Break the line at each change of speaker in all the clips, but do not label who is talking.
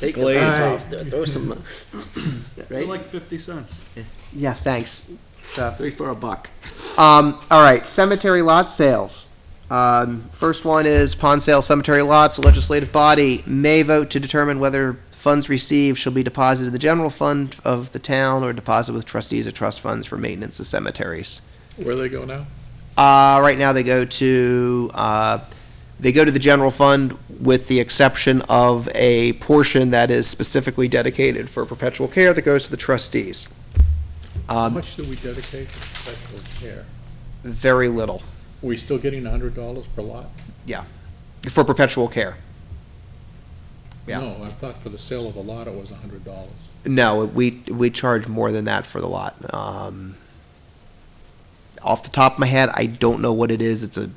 Take the
Glades.
pants off, there. throw some,
They're
right?
like fifty cents.
Yeah, thanks. So,
Three for a buck.
um, all right, cemetery lot sales. Um, first one is pond sale cemetery lots. The legislative body may vote to determine whether funds received shall be deposited in the general fund of the town or deposited with trustees or trust funds for maintenance of cemeteries.
Where they go now?
Uh, right now, they go to uh, they go to the general fund with the exception of a portion that is specifically dedicated for perpetual care that goes to the trustees.
How
Um,
much do we dedicate to perpetual care?
very little
Are we still getting a hundred dollars per lot?
for perpetual care. Yeah.
No, I thought for the sale of a lot, it was a hundred dollars.
No, we we charge more than that for the lot. Um, off the top of my head, I don't know what it is. It's a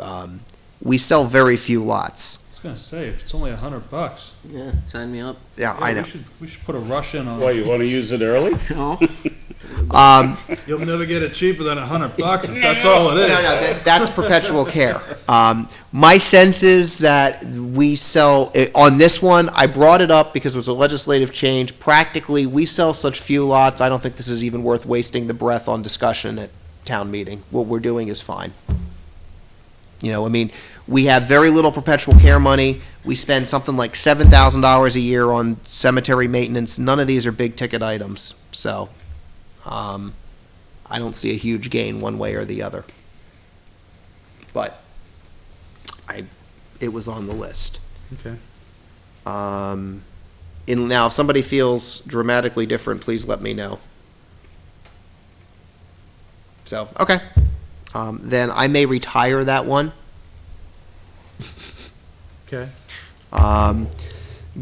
um, we sell very few lots.
I was gonna say, if it's only a hundred bucks,
Yeah, sign me up.
Yeah, I know.
We should, we should put a rush in on.
Why, you want to use it early?
No,
Um,
You'll never get it cheaper than a hundred bucks if that's all it
No, no,
is.
that, that's perpetual care. Um, my sense is that we sell, eh, on this one, I brought it up because it was a legislative change. Practically, we sell such few lots, I don't think this is even worth wasting the breath on discussion at town meeting. What we're doing is fine. You know, I mean, we have very little perpetual care money. We spend something like seven thousand dollars a year on cemetery maintenance. None of these are big ticket items, so, um, I don't see a huge gain one way or the other but I, it was on the list.
Okay.
Um, and now, if somebody feels dramatically different, please let me know. So, okay. Um, then I may retire that one.
Okay.
Um,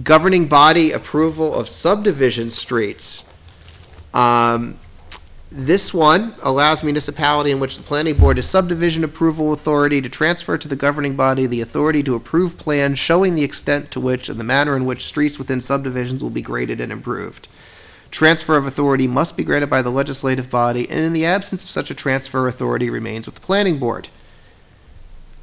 governing body approval of subdivision streets. Um, this one allows municipality in which the planning board is subdivision approval authority to transfer to the governing body the authority to approve plans showing the extent to which and the manner in which streets within subdivisions will be graded and improved. Transfer of authority must be granted by the legislative body, and in the absence of such a transfer, authority remains with the planning board.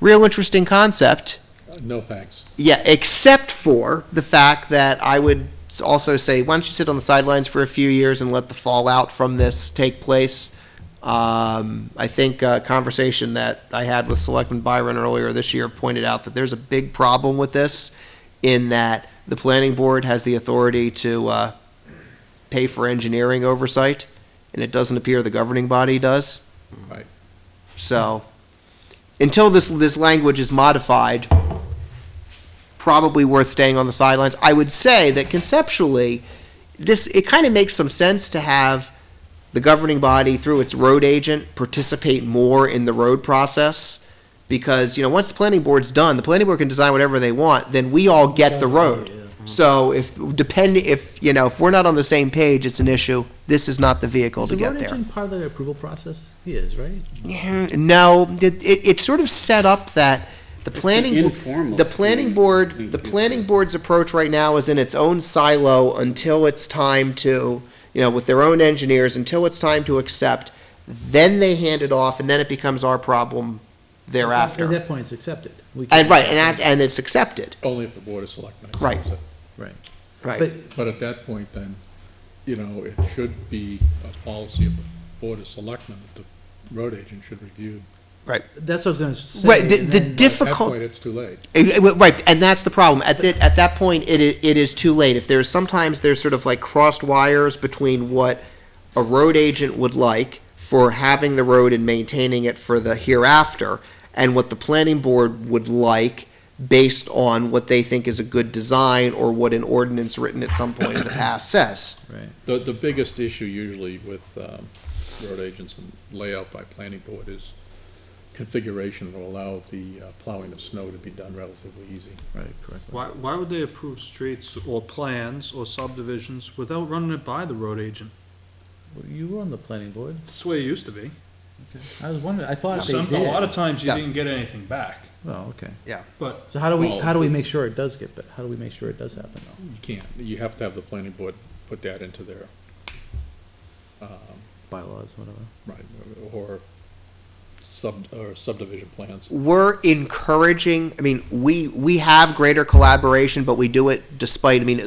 Real interesting concept.
Uh, No, thanks.
Yeah, except for the fact that I would s- also say, why don't you sit on the sidelines for a few years and let the fallout from this take place? Um, I think a conversation that I had with Selectman Byron earlier this year pointed out that there's a big problem with this in that the planning board has the authority to uh, pay for engineering oversight, and it doesn't appear the governing body does.
Right.
So, until this, this language is modified, probably worth staying on the sidelines. I would say that conceptually, this, it kind of makes some sense to have the governing body, through its road agent, participate more in the road process. Because, you know, once the planning board's done, the planning board can design whatever they want, then we all get the road. Mm-hmm. So if, depend, if, you know, if we're not on the same page, it's an issue. This is not the vehicle to get there.
part of the approval process? He is, right?
Mhm. No, it, it, it's sort of set up that the planning,
informal.
the planning board, the planning board's approach right now is in its own silo until it's time to, you know, with their own engineers, until it's time to accept. Then they hand it off, and then it becomes our problem
At
thereafter.
that point, it's accepted. We can-
And right, and act- and it's accepted.
Only if the board of selectmen.
Right.
approves it.
But
But at that point, then, you know, it should be a policy of the board of selectmen that the road agent should review.
that's what I was gonna say.
Right. The,
and
the
then-
At that
difficult.
point, it's too late.
Eh, eh, Right, and that's the problem. At the, at that point, it is, it is too late. If there's sometimes there's sort of like crossed wires between what a road agent would like for having the road and maintaining it for the hereafter, and what the planning board would like based on what they think is a good design or what an ordinance written at some point in the past says.
The, the biggest issue usually with um, road agents and layout by planning board is configuration will allow the uh, plowing of snow to be done relatively easy.
Right, correct.
Why, why would they approve streets or plans or subdivisions without running it by the road agent?
Well, You were on the planning board.
That's the way it used to be.
I was wondering, I thought they
Some, a lot
did.
of times you
Yeah.
didn't get anything back.
Oh, okay.
But
So how do we,
Well-
how do we make sure it does get, ba- how do we make sure it does happen though?
You can't, you have to have the planning board put that into their, um,
Bylaws, whatever.
right, or sub, or subdivision plans.
We're encouraging, I mean, we, we have greater collaboration, but we do it despite, I mean,